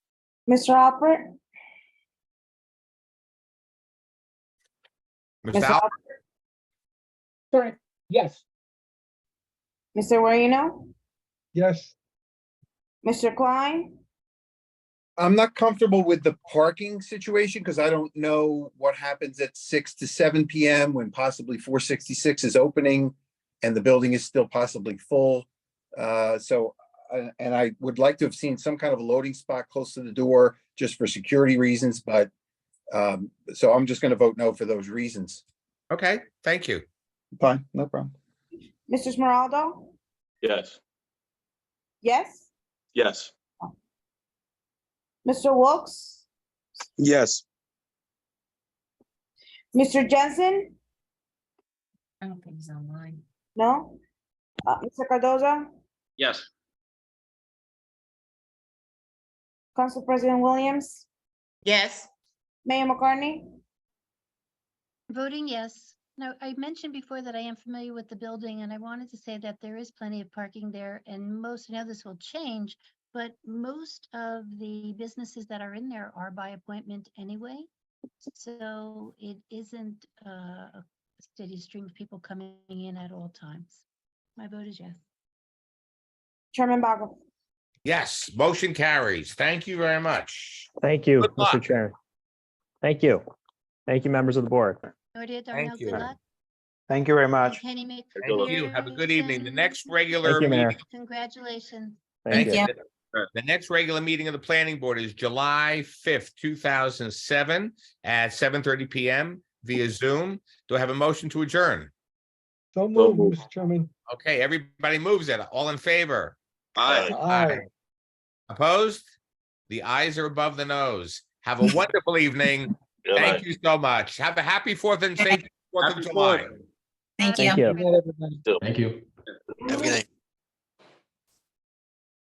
Mr. Alpert? Ms. Mr. Al, Alpert, Sorry. Yes. Mr. Guarino? Yes. Mr. Klein? I'm not comfortable with the parking situation because I don't know what happens at six to seven PM when possibly four sixty-six is opening and the building is still possibly full. Uh, so, uh, and I would like to have seen some kind of a loading spot close to the door just for security reasons, but um, so I'm just gonna vote no for those reasons. okay, thank you. Fine, no problem. Mr. Smiraldo? Yes, Yes? yes, Mr. Wilks? Yes, Mr. Jensen? I don't think he's online. No? Uh, Mr. Cardoza? yes, Council President Williams? Yes. Mayor McCartney? Voting yes. Now, I mentioned before that I am familiar with the building and I wanted to say that there is plenty of parking there and most, now this will change, but most of the businesses that are in there are by appointment anyway. So it isn't uh, a steady stream of people coming in at all times. My vote is yes. Chairman Bago? Yes, motion carries. Thank you very much. Thank you, Good luck. Mr. Chair. Thank you. Thank you, members of the board. Nordia Thank Darnell, you. good luck. Thank you very much. Kenny make. Thank you. Have a good evening. The next Congratulations. regular Thank you, Mayor. meeting, Congratulations. thank you. The next regular meeting of the planning board is July fifth, two thousand seven at seven thirty PM via Zoom. Do I have a motion to adjourn? So move, move, moved. Mr. Chairman. Okay, everybody moves it. All in favor? aye. Aye. Opposed? The eyes are above the nose. Have a wonderful evening. Good night. Thank you so much. Have a happy Fourth and safe Fourth of Happy July. Fourth. Thank Happy you. you. Good night, everybody. have a good night.